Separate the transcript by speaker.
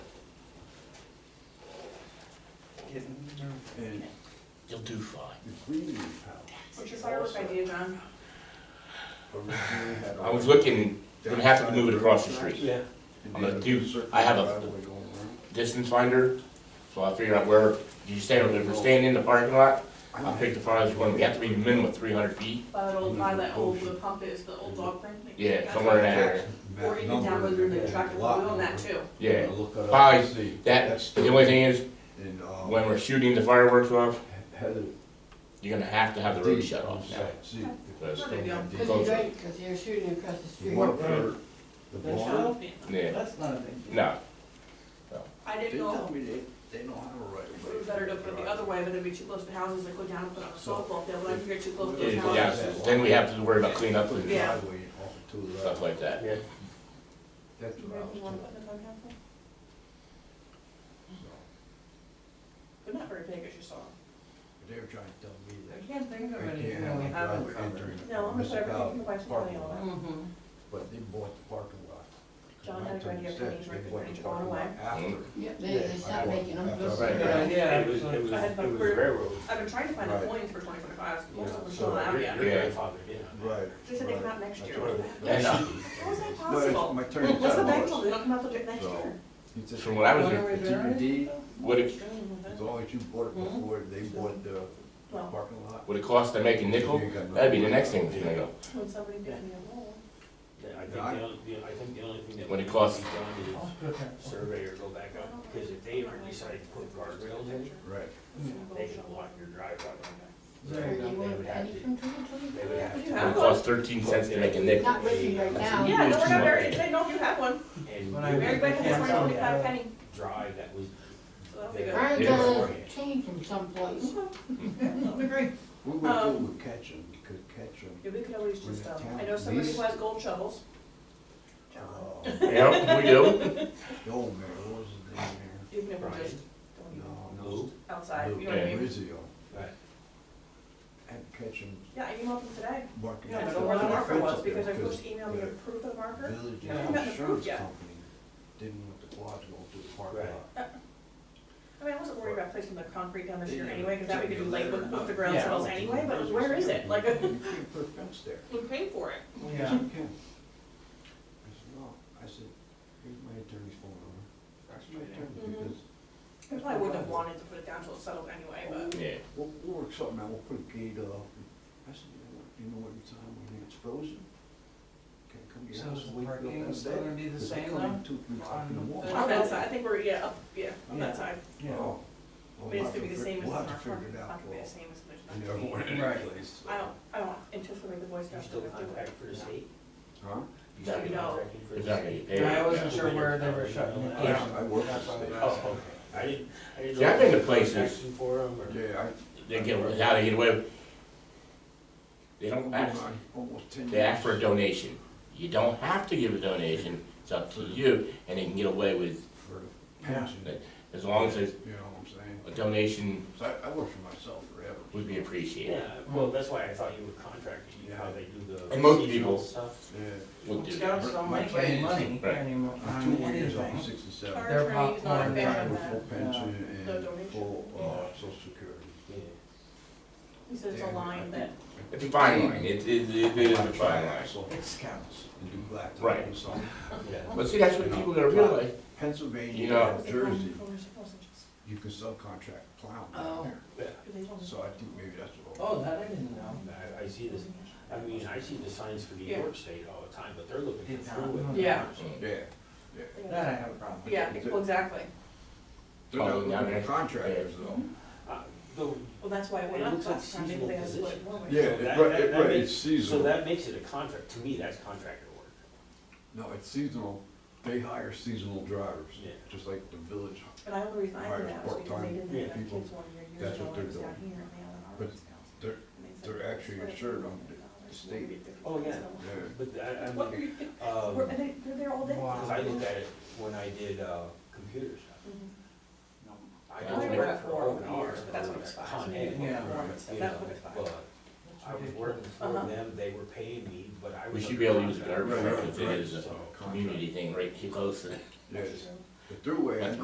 Speaker 1: And
Speaker 2: You'll do fine.
Speaker 3: the cleaning house
Speaker 4: What's your firework idea, John?
Speaker 3: originally had.
Speaker 2: I was looking, we're gonna have to move it across the street.
Speaker 1: Yeah.
Speaker 3: And
Speaker 2: I'm gonna
Speaker 3: then
Speaker 2: do-
Speaker 3: circle
Speaker 2: I have a-
Speaker 3: driveway going around.
Speaker 2: Distance finder, so I figure out where, you stand, if we're standing in the parking lot, I pick the farthest one, we have to be minimum of three hundred feet.
Speaker 4: By that old, by that old blue pump is, the old dog thing?
Speaker 2: Mm-hmm. Yeah, somewhere in that area.
Speaker 3: Map
Speaker 4: Or you can
Speaker 3: number
Speaker 4: download your new
Speaker 3: and
Speaker 4: tractor
Speaker 3: lot
Speaker 4: wheel on that
Speaker 3: number.
Speaker 4: too.
Speaker 2: Yeah,
Speaker 3: I'll Look it up
Speaker 2: Probably
Speaker 3: and see.
Speaker 2: that, the only thing is,
Speaker 3: And, uh,
Speaker 2: when we're shooting the fireworks off,
Speaker 3: Heather.
Speaker 2: you're gonna have to have the road shut off now.
Speaker 3: See.
Speaker 2: That's-
Speaker 4: Not a big deal.
Speaker 3: The
Speaker 5: Because you're right, because you're shooting across the street.
Speaker 3: one for the
Speaker 1: That's
Speaker 3: barn,
Speaker 2: Yeah,
Speaker 1: That's not a big deal.
Speaker 2: no,
Speaker 4: I
Speaker 3: they
Speaker 4: didn't
Speaker 3: tell
Speaker 4: know
Speaker 3: me they, they don't have a right
Speaker 4: if
Speaker 3: of
Speaker 4: it
Speaker 3: way.
Speaker 4: was better to put it the other way, but it'd be too close to houses, like go down and put up a softball field, but I figured too close to those
Speaker 2: Yeah,
Speaker 4: houses.
Speaker 2: yeah, then we have to worry about cleanup
Speaker 3: Put a
Speaker 2: and
Speaker 4: Yeah.
Speaker 3: driveway off of two
Speaker 2: stuff like that.
Speaker 1: Yeah.
Speaker 3: That's what I was
Speaker 4: You wanna
Speaker 3: told.
Speaker 4: put in the dog house?
Speaker 3: So,
Speaker 4: They're not very big, as you saw.
Speaker 3: They were trying to tell me
Speaker 1: I
Speaker 3: that.
Speaker 1: can't think of
Speaker 3: they
Speaker 1: anything
Speaker 3: can't
Speaker 1: that we
Speaker 3: have a
Speaker 1: haven't
Speaker 3: driveway
Speaker 1: covered.
Speaker 3: entering the
Speaker 4: No, I'm gonna put everything in the
Speaker 3: municipality
Speaker 4: wife's money
Speaker 3: parking
Speaker 4: on
Speaker 3: lot,
Speaker 5: Mm-hmm.
Speaker 3: But they bought the parking lot.
Speaker 4: John had a good idea for
Speaker 3: Instead,
Speaker 4: these
Speaker 3: they
Speaker 4: records
Speaker 3: bought the
Speaker 4: when you bought
Speaker 3: parking lot
Speaker 4: away.
Speaker 3: After.
Speaker 5: Yep, they, they stopped making them.
Speaker 3: That's
Speaker 5: Those-
Speaker 3: right.
Speaker 1: Good idea, actually.
Speaker 6: It was, it was,
Speaker 4: I had my
Speaker 6: it was
Speaker 4: career-
Speaker 6: railroad.
Speaker 4: I've been trying to find
Speaker 3: Right.
Speaker 4: the coins for twenty-five fives, most of them are still
Speaker 6: So
Speaker 4: not out
Speaker 6: your-
Speaker 4: yet.
Speaker 6: Your
Speaker 2: Yeah.
Speaker 6: grandfather, yeah.
Speaker 3: Right.
Speaker 4: They said they come out next
Speaker 3: That's
Speaker 4: year.
Speaker 3: what it-
Speaker 2: And, uh,
Speaker 4: How was that
Speaker 3: No, it's-
Speaker 4: possible?
Speaker 3: My attorney
Speaker 4: What's the
Speaker 3: told me
Speaker 4: bank
Speaker 3: it
Speaker 4: told
Speaker 3: was.
Speaker 4: me, they'll come out till next
Speaker 3: So- He
Speaker 4: year.
Speaker 3: said,
Speaker 2: From what I was,
Speaker 5: Wanna
Speaker 2: doing,
Speaker 3: The
Speaker 5: reserve?
Speaker 3: DVD,
Speaker 2: what it,
Speaker 3: as long as you bought it before they bought the
Speaker 4: Mm-hmm. Well,
Speaker 3: parking lot.
Speaker 2: what it costs to make a nickel,
Speaker 3: you ain't got no-
Speaker 2: that'd be the next thing that's gonna go.
Speaker 4: when somebody gives me a roll.
Speaker 6: I think the only, the- I think the only thing that.
Speaker 2: When it
Speaker 6: needs to
Speaker 2: costs-
Speaker 6: be done is Survey or go back up, because if they ever decide to put guardrails in,
Speaker 3: Right.
Speaker 6: they should block your drive out on that.
Speaker 1: There you
Speaker 5: You
Speaker 1: go.
Speaker 6: They
Speaker 5: want
Speaker 6: would have
Speaker 5: penny
Speaker 6: to,
Speaker 5: from twenty
Speaker 6: they would
Speaker 4: You
Speaker 5: twenty-four?
Speaker 6: have to.
Speaker 2: It would
Speaker 4: have
Speaker 2: cost thirteen cents to make a nickel.
Speaker 5: Not with you right now.
Speaker 4: Yeah, no, we're not
Speaker 2: Yeah.
Speaker 4: very, they know if you have one.
Speaker 6: And
Speaker 1: When I-
Speaker 4: Mary Beth has
Speaker 1: Yeah.
Speaker 4: twenty, twenty-five penny,
Speaker 6: drive that was.
Speaker 4: so that'll be good.
Speaker 5: I'm
Speaker 2: Yeah.
Speaker 5: gonna change them someplace.
Speaker 4: We agree.
Speaker 3: We would do
Speaker 4: Um,
Speaker 3: with Ketchum, because Ketchum,
Speaker 4: Yeah, we could always just, um, I know somebody who has gold shovels. John,
Speaker 3: uh,
Speaker 2: Yeah, we do,
Speaker 3: the old mayor, what was his name there?
Speaker 4: even if we're just
Speaker 3: No,
Speaker 4: going
Speaker 3: no.
Speaker 6: Lou?
Speaker 4: outside, you know what I
Speaker 2: Yeah.
Speaker 4: mean?
Speaker 3: Rizzio,
Speaker 6: Right.
Speaker 3: had Ketchum
Speaker 4: Yeah, I emailed them today.
Speaker 3: marking.
Speaker 4: Yeah, I
Speaker 3: the
Speaker 4: don't know where the
Speaker 3: fence
Speaker 4: marker
Speaker 3: up
Speaker 4: was
Speaker 3: there
Speaker 4: because they're supposed
Speaker 3: because
Speaker 4: to email me a
Speaker 3: the
Speaker 4: proof of the marker.
Speaker 3: Village
Speaker 1: Yeah.
Speaker 4: Not approved
Speaker 3: Insurance
Speaker 4: yet.
Speaker 3: Company didn't want the quad to go through the
Speaker 6: Right.
Speaker 3: parking lot.
Speaker 4: I mean, I wasn't worried about placing the concrete down this year
Speaker 1: uh,
Speaker 3: Yeah.
Speaker 4: anyway, because that would be late with off the ground
Speaker 1: Yeah.
Speaker 4: settles anyway, but it was, where is it? Like,
Speaker 3: You can't put a fence there.
Speaker 4: we paid for it.
Speaker 1: Yeah.
Speaker 3: Yes, you can. I said, no, I said, here's my attorney's phone number. That's my attorney, because
Speaker 4: Mhm. I probably wouldn't have wanted to put it down till it settled anyway, but.
Speaker 2: yeah.
Speaker 3: we'll, we'll work something out, we'll put a gate up. I said, you know what, you know what time when it's frozen? Can't come to your
Speaker 1: So
Speaker 3: house
Speaker 1: is the
Speaker 3: and wake you up
Speaker 1: parking
Speaker 3: all
Speaker 1: still
Speaker 3: day,
Speaker 1: gonna be the
Speaker 3: 'cause they
Speaker 1: same
Speaker 3: come in
Speaker 1: though?
Speaker 3: Two, three o'clock in the
Speaker 1: On-
Speaker 3: morning.
Speaker 4: On that side, I think we're, yeah, up, yeah, on that
Speaker 1: Yeah.
Speaker 4: side.
Speaker 1: Yeah.
Speaker 3: Oh.
Speaker 4: I
Speaker 3: Well,
Speaker 4: mean,
Speaker 3: we'll have
Speaker 4: it's gonna be the
Speaker 3: to fig-
Speaker 4: same as
Speaker 3: We'll
Speaker 4: in
Speaker 3: have
Speaker 4: our
Speaker 3: to
Speaker 4: front,
Speaker 3: figure
Speaker 4: it's
Speaker 3: it
Speaker 4: not
Speaker 3: out.
Speaker 4: gonna be the same as there's
Speaker 3: I
Speaker 4: not.
Speaker 3: never went in
Speaker 1: Right.
Speaker 3: place.
Speaker 4: I don't, I don't anticipate the Boy
Speaker 6: You
Speaker 4: Scouts.
Speaker 6: still
Speaker 4: are gonna do
Speaker 6: contract
Speaker 4: it.
Speaker 6: for the state?
Speaker 3: Huh?
Speaker 6: You still
Speaker 4: No.
Speaker 6: contracting for the
Speaker 2: It's not
Speaker 6: state?
Speaker 2: gonna get paid.
Speaker 1: I wasn't sure where they were shutting it
Speaker 3: Yeah,
Speaker 1: down.
Speaker 3: I work
Speaker 1: That's
Speaker 3: for
Speaker 1: why I
Speaker 3: the
Speaker 1: was
Speaker 6: Oh,
Speaker 1: asking.
Speaker 6: okay. I didn't, I didn't.
Speaker 2: See, I've
Speaker 6: know
Speaker 2: been to
Speaker 6: if there was
Speaker 2: places-
Speaker 6: action For them or.
Speaker 3: Yeah, I.
Speaker 2: They get, how they get away, with- they don't ask,
Speaker 3: Almost ten years.
Speaker 2: they ask for a donation. You don't have to give a donation, it's up to you, and they can get away with,
Speaker 3: For the pension,
Speaker 2: Yeah. as long as it's-
Speaker 3: you know what I'm saying?
Speaker 2: a donation
Speaker 3: So I, I worked for myself forever.
Speaker 2: would be appreciated.
Speaker 6: Yeah, well, that's why I thought you were contracting, you know, how they do the.
Speaker 2: And most
Speaker 6: seasonal
Speaker 2: people-
Speaker 6: Stuff.
Speaker 3: Yeah.
Speaker 2: Would do that.
Speaker 1: Scouts don't make any money
Speaker 2: Right.
Speaker 1: anymore
Speaker 3: I'm
Speaker 1: on
Speaker 3: Two years, I'm
Speaker 1: anything.
Speaker 3: sixty-seven.
Speaker 4: Our attorney is not a
Speaker 1: popcorn
Speaker 4: fan
Speaker 3: Retired
Speaker 4: of
Speaker 3: with full
Speaker 4: that.
Speaker 3: pension
Speaker 4: No
Speaker 3: and
Speaker 4: donation.
Speaker 3: full, uh, social security.
Speaker 6: Yeah.
Speaker 4: He said it's a line that,
Speaker 2: It's a fine line, it, it, it is a fine line.
Speaker 3: So,
Speaker 1: It's scouts.
Speaker 3: And do black. tie
Speaker 2: Right.
Speaker 3: and some.
Speaker 6: Yeah.
Speaker 2: But see, that's what people gotta realize. You
Speaker 3: Pennsylvania,
Speaker 2: know-
Speaker 3: and Jersey,
Speaker 4: Because
Speaker 3: you can subcontract plowing
Speaker 5: Oh.
Speaker 3: down there.
Speaker 4: they don't-
Speaker 3: So I think maybe that's what.
Speaker 1: Oh, that I didn't know.
Speaker 6: I, I see this, I mean, I see the signs for New York State all the time, but they're looking
Speaker 1: Did
Speaker 6: for
Speaker 1: not
Speaker 6: through
Speaker 1: know
Speaker 6: it.
Speaker 4: Yeah.
Speaker 2: Mm.
Speaker 3: Yeah, yeah.
Speaker 1: That I have a problem with.
Speaker 4: Yeah, well, exactly.
Speaker 3: They're not
Speaker 2: Plowing down
Speaker 3: looking
Speaker 2: there.
Speaker 3: for contractors though.
Speaker 6: Uh, The,
Speaker 4: Well, that's why it went
Speaker 6: It
Speaker 4: up
Speaker 6: looks like
Speaker 4: last time, because
Speaker 6: seasonal
Speaker 4: they had to split it
Speaker 6: position.
Speaker 4: one way.
Speaker 3: Yeah,
Speaker 6: So
Speaker 3: it-
Speaker 6: that-
Speaker 3: right,
Speaker 6: that-
Speaker 3: it-
Speaker 6: that
Speaker 3: right, it's
Speaker 6: makes- so
Speaker 3: seasonal.
Speaker 6: that makes it a contract, to me, that's contractor work.
Speaker 3: No, it's seasonal. They hire seasonal drivers,
Speaker 6: Yeah.
Speaker 3: just like the village.
Speaker 4: But I only reason I did that was because they
Speaker 3: Part-time
Speaker 4: didn't have
Speaker 3: people,
Speaker 4: kids one year, years
Speaker 3: that's
Speaker 4: ago,
Speaker 3: what
Speaker 4: when I
Speaker 3: they're
Speaker 4: was down
Speaker 3: doing.
Speaker 4: here, and they had an
Speaker 3: But
Speaker 4: Army Scouts.
Speaker 3: They're,
Speaker 4: And they said,
Speaker 3: they're actually
Speaker 4: "Split it
Speaker 3: insured
Speaker 4: $50,000,
Speaker 3: on the
Speaker 4: we'll
Speaker 3: state.
Speaker 4: give you
Speaker 6: Oh, yeah.
Speaker 4: $50,000."
Speaker 3: yeah.
Speaker 6: But I, I
Speaker 4: What,
Speaker 6: mean,
Speaker 4: you're, we're-
Speaker 6: um,
Speaker 4: and they, they're there all day.
Speaker 1: Wow.
Speaker 6: cause I looked at it when I did, uh, computer stuff.
Speaker 4: Mhm.
Speaker 2: Yeah.
Speaker 6: I was
Speaker 2: I
Speaker 6: working
Speaker 4: worked
Speaker 6: for O and
Speaker 4: for
Speaker 6: R,
Speaker 4: years, but that's what it was
Speaker 6: Con
Speaker 1: Yeah.
Speaker 4: for.
Speaker 6: Ed, you
Speaker 4: That's
Speaker 6: know,
Speaker 4: what it's for.
Speaker 6: but I was working for
Speaker 4: Uh-huh.
Speaker 6: them, they were paying me, but I was.
Speaker 2: We should
Speaker 6: under
Speaker 2: be able to use the
Speaker 6: contract.
Speaker 2: garbage
Speaker 3: Right,
Speaker 2: truck if it
Speaker 3: right,
Speaker 2: is a
Speaker 6: So-
Speaker 2: community thing, right, too close to
Speaker 3: Yes, the throughway, I
Speaker 2: That's